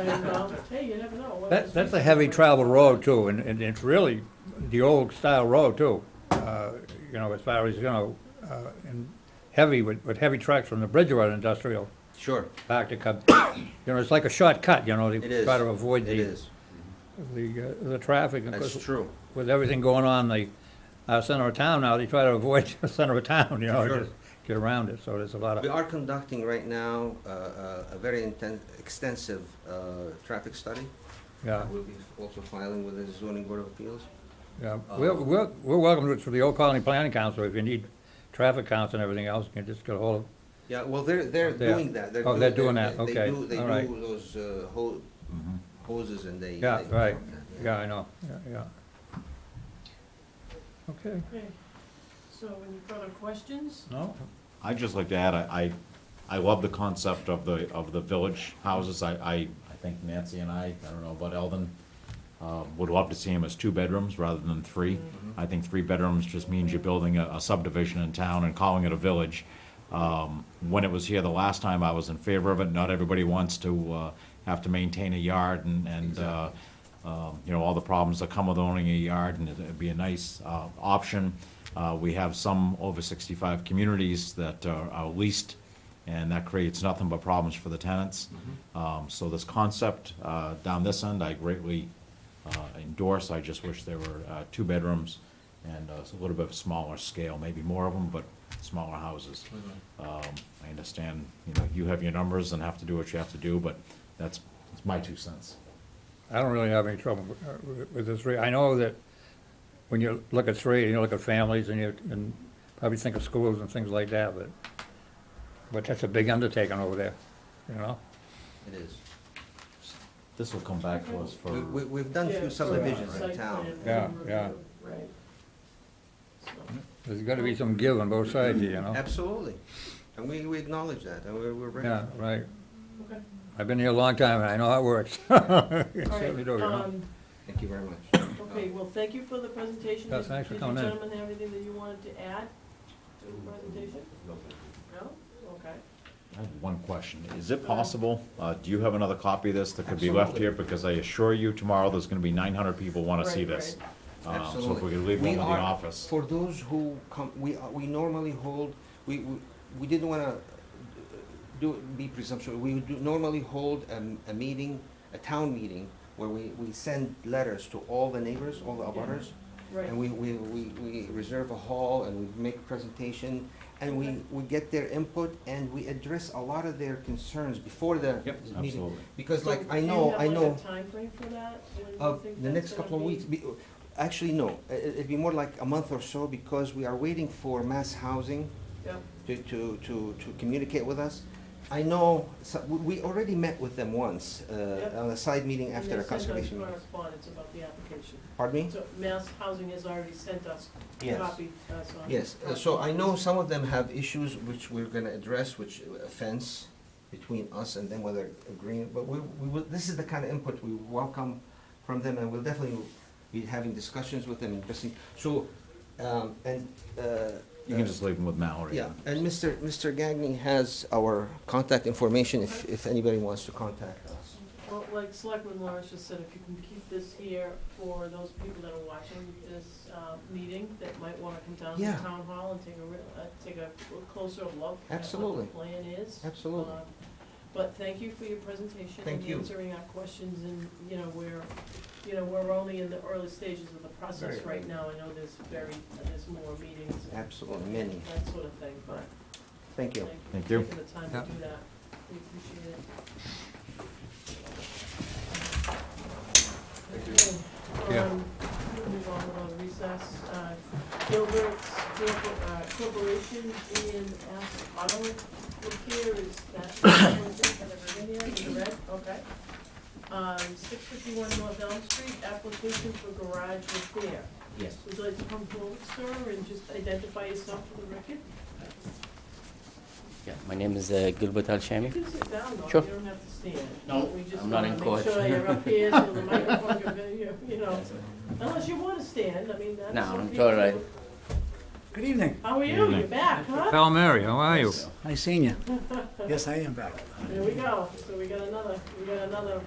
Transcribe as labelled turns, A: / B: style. A: involved, um, hey, you never know. what
B: That,
A: this
B: that's a
A: week's
B: heavy
A: gonna bring.
B: travel road too, and, and it's really the old style road too. Uh, You know, as far as, you know, uh, and heavy with, with heavy trucks from the Bridgewater Industrial
C: Sure,
B: Park to come. You know, it's like a shortcut, you know,
C: it
B: they
C: is.
B: try to avoid
C: It
B: the,
C: is,
B: the, uh, the traffic. and of
C: that's
B: course,
C: true.
B: With everything going on in the, uh, center of town now, they try to avoid the center of town, you know,
C: Sure.
B: just get around it, so there's a lot
C: We
B: of,
C: are conducting right now uh, uh, a very inten extensive uh, traffic study. Uh,
B: yeah,
C: We'll be also filing with the zoning board of appeals.
B: yeah.
C: Uh,
B: We're, we're, we're welcome to it through the Old Colony Planning Council, if you need traffic counts and everything else, you can just get a hold of
C: Yeah, well, they're, they're
B: They are.
C: doing that.
B: Oh, they're doing
C: they-
B: that.
C: they
B: Okay.
C: do- They
B: All right.
C: do those uh, ho- hoses and they.
B: Yeah,
C: they-
B: right, yeah, I know, yeah, yeah. Okay,
A: Okay. So any further questions?
B: no,
D: I'd just like to add, I, I I love the concept of the, of the village houses. I, I, I think Nancy and I, I don't know about Eldon, uh, would love to see them as two bedrooms rather than three. I think three bedrooms just means you're building a a subdivision in town and calling it a village. Um, When it was here the last time, I was in favor of it. Not everybody wants to uh, have to maintain a yard and, and, uh, um, you know, all the problems that come with owning a yard, and it'd be a nice uh, option. Uh, We have some over 65 communities that are are leased, and that creates nothing but problems for the tenants. Um, So this concept uh, down this end, I greatly uh, endorse. I just wish there were uh, two bedrooms and uh, a little bit of smaller scale, maybe more of them, but smaller houses. Um, I understand, you know, you have your numbers and have to do what you have to do, but that's, that's my two cents.
B: I don't really have any trouble uh, with- with this three. I know that when you look at three, and you look at families, and you, and probably think of schools and things like that, but, but that's a big undertaking over there, you know?
C: It is.
D: This will come back to us for.
C: We- we- We've done
A: Yeah,
C: few
A: for
C: subdivisions in
A: site
C: town.
A: plan
B: Yeah,
A: review,
B: yeah.
A: Right. So-
B: There's gotta be some give on both sides, you know?
C: Absolutely. And we, we acknowledge that and we're, we're ready.
B: Yeah, right.
A: Okay.
B: I've been here a long time, and I know how it works. It
A: All right,
B: Certainly do, you know?
A: um,
C: Thank you very much.
A: Okay, well, thank you for the presentation.
B: Yeah,
A: Did-
B: thanks for coming in.
A: Did you gentlemen have anything that you wanted to add to the presentation? No? Okay.
D: I have one question. Is it possible, uh, do you have another copy of this that could be left here? Because I assure you tomorrow, there's gonna be nine hundred people wanna see
A: Right,
D: this. Um,
C: Absolutely.
D: So if we could leave one
C: We
D: with the
C: are-
D: office.
C: For those who come, we, are- we normally hold, we, we- we didn't wanna uh, do, be presumptuous. We would do- normally hold a, a meeting, a town meeting, where we, we send letters to all the neighbors, all the abutters. And
A: Right,
C: we, we, we, we reserve a hall and we make a presentation and we, we get their input and we address a lot of their concerns before the
D: Yep,
C: meeting.
D: absolutely.
C: Because
A: So
C: like, I
A: do you
C: know,
A: have,
C: I
A: like, a
C: know,
A: timeframe for that? When you
C: uh,
A: think
C: the
A: that's
C: next
A: gonna
C: couple of
A: be?
C: weeks, be- actually, no, it, it'd be more like a month or so because we are waiting for mass housing
A: Yeah,
C: to, to, to, to communicate with us. I know, so- we, we already met with them once, uh,
A: Yep.
C: on a side meeting
A: and
C: after
A: they sent
C: a
A: us
C: conservation meeting.
A: correspondence about the application.
C: Pardon me?
A: So Mass Housing has already sent us,
C: Yes.
A: copied us on.
C: Yes, uh, so I know some of them have issues which we're gonna address, which offense between us and them, whether agreeing, but we, we, will- this is the kind of input we welcome from them, and we'll definitely be having discussions with them, and addressing, so, um, and, uh.
D: You can just leave them with Mallory.
C: Yeah, and Mr. Mr. Gagnon has our contact information if, if anybody wants to contact us.
A: Well, like Selectman Lawrence just said, if you can keep this here for those people that are watching this, uh, meeting, that might wanna come down to
C: Yeah.
A: town hall and take a real, uh, take a closer look
C: Absolutely.
A: at what the plan is.
C: Absolutely.
A: Um, But thank you for your presentation.
C: Thank you.
A: And answering our questions, and, you know, we're, you know, we're only in the early stages of the process
C: Very
A: right
C: early.
A: now. I know there's very, there's more meetings and
C: Absolutely, many,
A: that sort of thing, but
C: thank you.
A: Thank
D: Thank
A: you
D: you.
A: for taking the time to
B: Yeah.
A: do that. We appreciate it. Okay,
B: Yeah.
A: um, we'll move on with our recess. Uh, Gilbert's Corpo- uh, Corporation in Ash- Ottawa, look here is that, that are in there, in the red, okay. Um, six fifty-one North Elm Street, application for garage repair.
C: Yes.
A: Would you like to come forward, sir, and just identify yourself for the record?
E: Yeah, my name is uh, Gilbert
A: You
E: Al-Shami.
A: can sit down, though,
E: Sure.
A: you don't have to stand.
E: No,
A: We just
E: I'm not in
A: wanna
E: court.
A: Make sure you're up here, so the microphone can, be- you- you know, unless you wanna stand, I mean, that's.
E: No,
A: up
E: I'm
A: to
E: sure
A: you.
E: I-
F: Good evening.
A: How are you, you're back, huh?
B: Pal Mary, how are you?
F: Nice seeing you. Yes, I am back.
A: There we go, so we got another, we got another